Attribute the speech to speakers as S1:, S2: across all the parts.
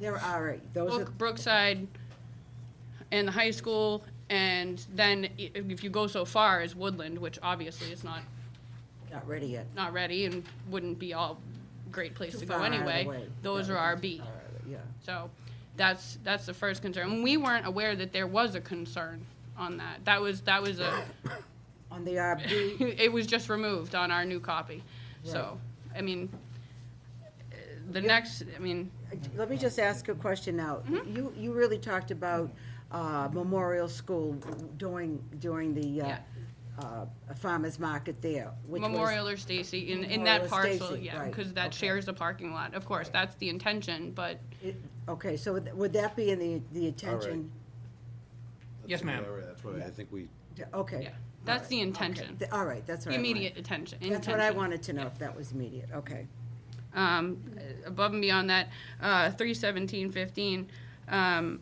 S1: They're all right. Those are,
S2: Brook- Brookside and the high school, and then i- if you go so far as Woodland, which obviously is not,
S1: not ready yet.
S2: not ready and wouldn't be all great place
S1: Too
S2: to go
S1: far out of the
S2: anyway.
S1: way.
S2: Those
S1: Yeah,
S2: are our
S1: too
S2: B.
S1: far out of it, Yeah.
S2: So that's, that's the first concern. And we weren't aware that there was a concern on that. That was, that was a,
S1: On the RB,
S2: it was just removed on our new copy. So, I mean, uh, the next, I mean,
S1: let me just ask a question now.
S2: Mm-hmm.
S1: You, you really talked about uh, Memorial School during, during the uh,
S2: Yeah.
S1: uh, farmer's market there, which was.
S2: Memorial or Stacy, in, in that
S1: Memorial or
S2: parcel,
S1: Stacy,
S2: yeah,
S1: right,
S2: because that
S1: okay.
S2: shares the parking lot. Of course, that's the intention, but
S1: it- Okay, so would- would that be in the, the attention?
S3: Yes, ma'am.
S4: That's why I think we,
S1: Yeah, Okay.
S2: Yeah, that's the
S1: All right,
S2: intention.
S1: okay. Th- All right, that's
S2: the
S1: what I wanted.
S2: immediate attention,
S1: That's what I
S2: intention.
S1: wanted to know, if that was immediate, okay.
S2: um, above and beyond that, uh, three seventeen fifteen. Um,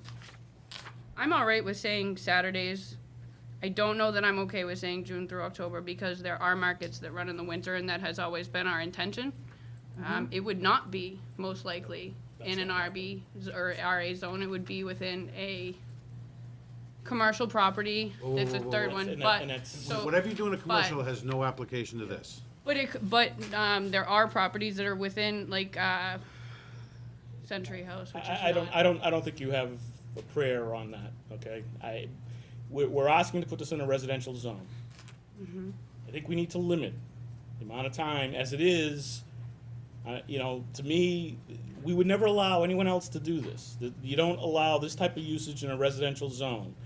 S2: I'm all right with saying Saturdays. I don't know that I'm okay with saying June through October because there are markets that run in the winter, and that has always been our intention.
S4: Mm-hmm.
S2: Um, it would not be most likely in an RB z- or RA zone. It would be within a commercial property.
S4: Whoa, whoa,
S2: That's a
S4: whoa, whoa,
S2: third
S4: whoa.
S2: one,
S3: And it-
S2: but
S3: and it's-
S2: so-
S4: whatever you do in a
S2: but-
S4: commercial has no application to this.
S2: but it, c- but um, there are properties that are within like uh, Century House, which is
S3: I, I don't,
S2: not-
S3: I don't, I don't think you have a prayer on that, okay? I, we're, we're asking to put this in a residential zone. I think we need to limit the amount of time, as it is, uh, you know, to me, we would never allow anyone else to do this. That You don't allow this type of usage in a residential zone.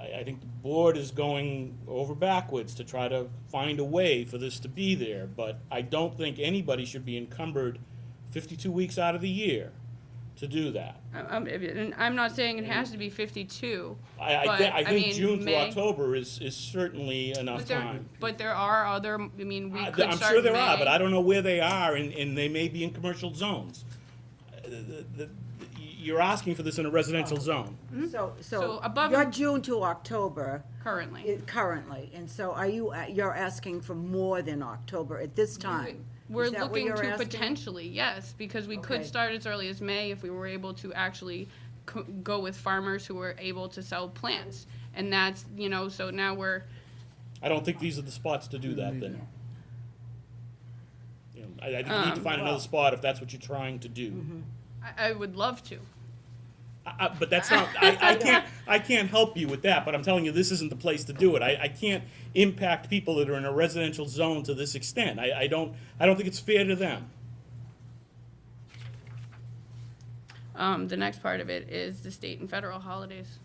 S3: I, I think the board is going over backwards to try to find a way for this to be there, but I don't think anybody should be encumbered fifty-two weeks out of the year to do that.
S2: I- I'm, um, and I'm not saying it has to be fifty-two.
S3: I, I,
S2: but,
S3: thi- I think
S2: mean,
S3: June through
S2: May-
S3: October is, is certainly enough
S2: But there,
S3: time.
S2: but there are other, I mean, we
S3: I-
S2: could
S3: I'm
S2: start
S3: sure there are,
S2: May.
S3: but I don't know where they are, and, and they may be in commercial zones. Uh, the- the- the- You're asking for this in a residential zone.
S1: So,
S2: Mm-hmm. So
S1: so,
S2: above
S1: you're
S2: and-
S1: June to October
S2: Currently.
S1: i- currently, and so are you, a- you're asking for more than October at this time?
S2: We're
S1: Is that what
S2: looking
S1: you're
S2: to
S1: asking?
S2: potentially, yes, because we could
S1: Okay.
S2: start as early as May if we were able to actually co- go with farmers who were able to sell plants. And that's, you know, so now we're,
S3: I don't think these are the spots to do that then. You know, I, I think you
S2: Um,
S3: need to find another spot if that's what you're trying to
S2: Mm-hmm.
S3: do.
S2: I, I would love to.
S3: I, I, but that's not, I, I can't, I can't help you with that, but I'm telling you, this isn't the place to do it. I, I can't impact people that are in a residential zone to this extent. I, I don't, I don't think it's fair to them.
S2: Um, the next part of it is the state and federal holidays.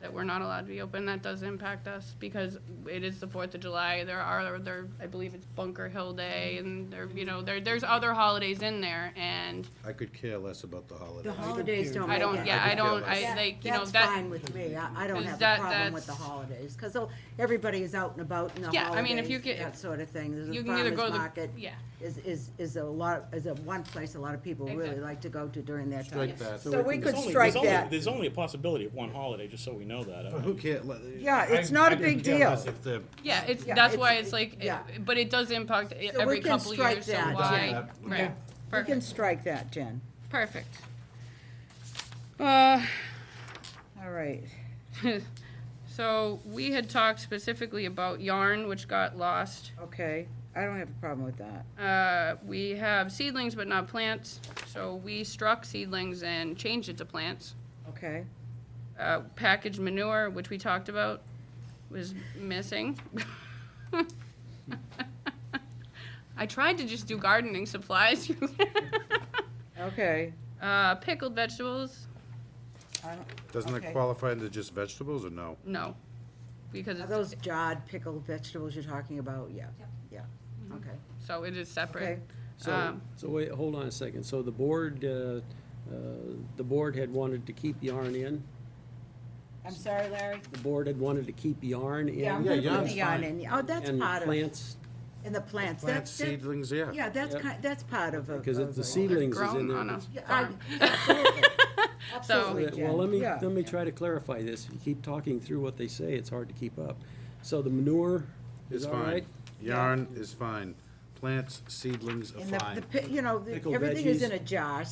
S2: That we're not allowed to be open, that does impact us, because it is the Fourth of July, there are, there, I believe it's Bunker Hill Day, and there, you know, there, there's other holidays in there, and
S4: I could care less about the
S1: The
S4: holidays.
S1: holidays don't
S2: I
S1: make
S2: don't,
S1: it.
S2: yeah, I don't, I,
S1: That-
S2: like, you know,
S1: That's
S2: that,
S1: fine with me, I, I don't
S2: 'Cause
S1: have a
S2: that-
S1: problem with the
S2: that's-
S1: holidays, because everybody is out and about in the
S2: Yeah, I mean, if you
S1: holidays,
S2: get-
S1: that sort of thing. There's
S2: you
S1: a
S2: can either
S1: farmer's
S2: go to the-
S1: market.
S2: yeah.
S1: Is, is, is a lot, is a one place a lot of people really
S2: Exactly.
S1: like to go to during that time.
S4: Strike that.
S1: So we could
S3: There's only-
S1: strike
S3: there's only-
S1: that.
S3: There's only a possibility of one holiday, just so we know that. I
S4: Who
S3: mean,
S4: cares?
S1: Yeah, it's not a big deal.
S4: If the,
S2: yeah, it's,
S1: Yeah,
S2: that's
S1: it's-
S2: why it's like,
S1: yeah.
S2: it- but it does impact i-
S1: So we
S2: every
S1: can
S2: couple
S1: strike
S2: years, so
S1: that.
S2: why,
S4: Yeah.
S2: right,
S1: We can
S2: perfect,
S1: strike that, Jen.
S2: perfect. Uh,
S1: All right.
S2: so, we had talked specifically about yarn, which got lost.
S1: Okay, I don't have a problem with that.
S2: Uh, we have seedlings but not plants, so we struck seedlings and changed it to plants.
S1: Okay,
S2: Uh, packaged manure, which we talked about, was missing. I tried to just do gardening supplies.
S1: okay.
S2: uh, pickled vegetables,
S1: I don't-
S4: doesn't
S1: Okay.
S4: it qualify into just vegetables or no?
S2: no, because
S1: Are
S2: it's,
S1: those jarred pickled vegetables you're talking about? Yeah, yeah, okay.
S2: so it
S1: Okay.
S2: is separate.
S5: So,
S2: Um,
S5: so wait, hold on a second. So the board, uh, uh, the board had wanted to keep yarn in?
S1: I'm sorry, Larry?
S5: The board had wanted to keep yarn in?
S1: Yeah, I'm
S4: Yeah,
S1: gonna put
S4: yarn's
S1: the yarn
S4: fine.
S1: in. Oh, that's part of, in
S5: And plants,
S1: the plants.
S4: Plant
S1: That's, that-
S4: seedlings, yeah.
S1: yeah, that's
S5: Yep.
S1: kind, that's part of. a-
S5: because
S1: of
S5: it's
S1: a-
S5: the seedlings is in
S2: grown
S5: there.
S2: on a
S1: Yeah, I-
S2: farm.
S1: absolutely. Absolutely,
S5: Yeah, Well, let
S1: Jen.
S5: me,
S1: Oh, Yeah.
S5: let me try to clarify this. If you keep talking through what they say, it's hard to keep up. So the manure
S4: It's
S5: is all
S4: fine.
S5: right?
S4: Yarn is fine. Plants, seedlings are
S1: And the-
S4: fine.
S1: the, pi- you know, the-
S5: Pickled
S1: everything is
S5: veggies.
S1: in a jar,